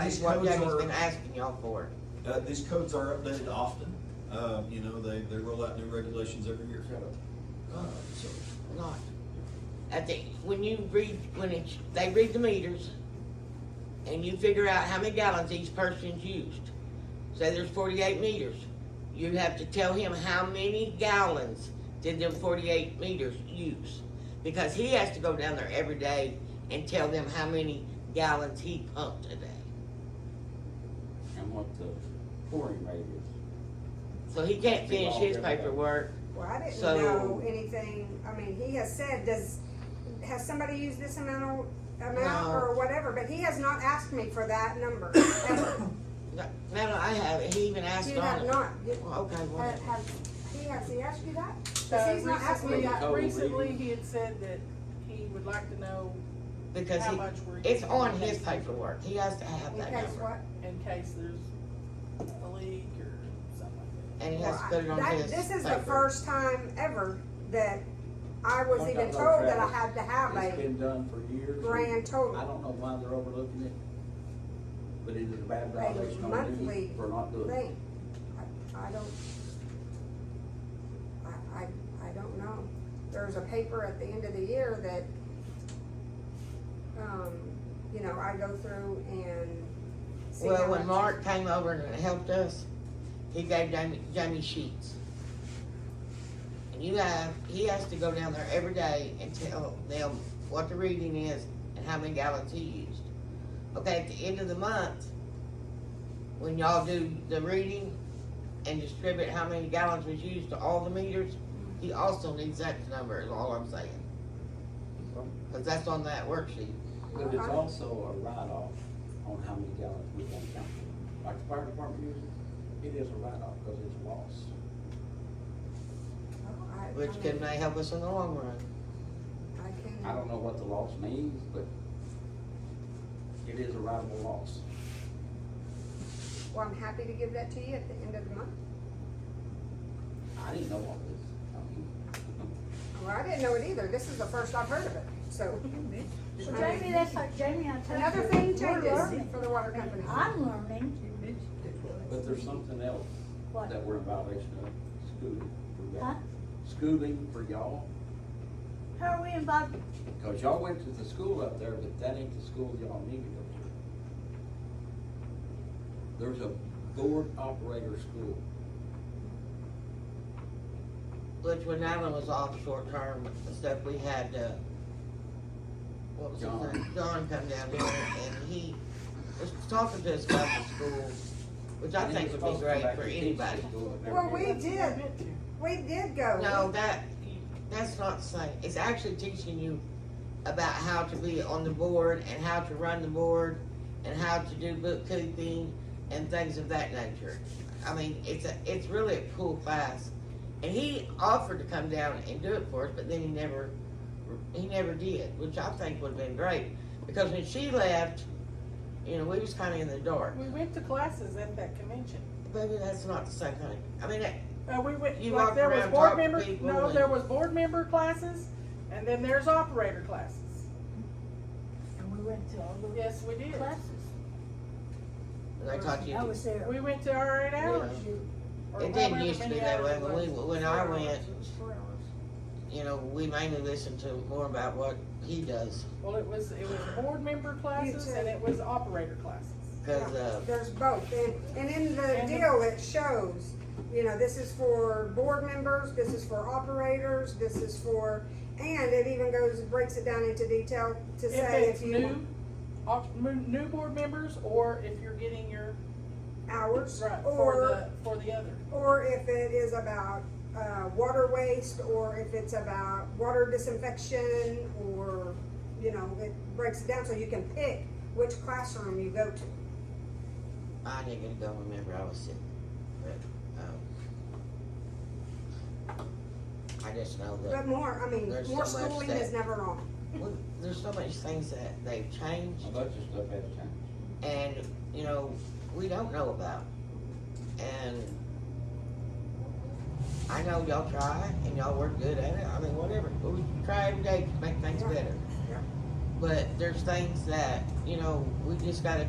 That's These what codes Doug's are- been asking y'all for. Uh, these codes are updated often, uh, you know, they, they roll out new regulations every year. Uh, so, Not. I think, when you read, when it's, they read the meters, and you figure out how many gallons each person's used. Say there's forty-eight meters, you have to tell him how many gallons did them forty-eight meters use? Because he has to go down there every day and tell them how many gallons he pumped a day. and what the pouring rate is. So he can't finish his paperwork, Well, I didn't So- know anything, I mean, he has said, does, has somebody used this amount of, amount No. or whatever, but he has not asked me for that number, ever. no, no, I have, it. he even asked You Uh, have on it. not, you- Well, Okay, well, ha- have, he has, he asked you that? Uh, Cause he's not asking me recently- uh, that, Code reading. Recently, he had said that he would like to know because how he, much we're. It's using on in his case- paperwork, he has to have in that case number, what? In case there's a leak or something like that. and he has to Well, put it on that- his This is the paper. first time ever that I was Like I even know, told that I Travis, had to have It's a been done for years. grand I total don't know why they're overlooking it, but it is a bad Like violation on monthly duty for not doing it. thing. I, I don't, I, I, I don't know. There's a paper at the end of the year that, um, you know, I go through and see how much. Well, when Mark came over and helped us, he gave Jamie, Jamie sheets. And you have, he has to go down there every day and tell them what the reading is and how many gallons he used. Okay, at the end of the month, when y'all do the reading and distribute how many gallons was used to all the meters, he also needs that number, is all I'm saying. Cause that's on that worksheet. But it's Uh-huh. also a write-off on how many gallons we can count. Like the fire department uses, it is a write-off because it's lost. Oh, I- I Which can mean, may help us in the long run. I can. I don't know what the loss means, but it is a writable loss. Well, I'm happy to give that to you at the end of the month. I didn't know all this. I mean, Well, I didn't know it either. This is the first I've heard of it, so. Well, Jamie, that's like Jamie, I tell you. Another thing we're changes learning. for the water company. I'm learning, But there's something else what, that we're in violation of, schooling for huh? y'all. Schooling for y'all, How are we involved? because y'all went to the school up there, but that ain't the school y'all need to go to. There's a board operator school. Which when Alan was off short term and stuff, we had, uh, what was his name? John come down here and he was talking to us about the school, which I And think he would was be supposed to great come back for and teach anybody. the school and Well, we everything. did, we did go. No, that, that's not saying, it's actually teaching you about how to be on the board and how to run the board and how to do bookkeeping and things of that nature. I mean, it's a, it's really a cool class. And he offered to come down and do it for us, but then he never, he never did, which I think would've been great. Because when she left, you know, we was kinda in the dark. We went to classes at that convention. Maybe that's not the same thing. I mean, that- Uh, we went, You like, walked there was around board talking to member, people no, and- there was board member classes, and then there's operator classes. And we went to all the Yes, we did. classes. they taught you. I to- was there. We went to our eight hours. or It didn't however used to be many that way, hours it when we, was. when I Four went, hours. It was four hours. you know, we mainly listened to more about what he does, Well, it was, it was board member classes too. and it was operator classes. cause, uh, There's both, and, and in the And- deal, it shows, you know, this is for board members, this is for operators, this is for, and it even goes, breaks it down into detail to If say it's if you, new, op- mo- new board members or if you're getting your, hours, right, or, for the, for the other. or if it is about, uh, water waste, or if it's about water disinfection, or, you know, it breaks it down, so you can pick which classroom you go to. I didn't get to go, remember, I was sick, but, um, I just know that, But more, I mean, There's more so much schooling that- is never wrong. well, there's so much things that they've changed, A bunch of stuff has changed. and, you know, we don't know about. And I know y'all try, and y'all work good at it, I mean, whatever, we try every day to make things better. Yeah. But there's things that, you know, we just gotta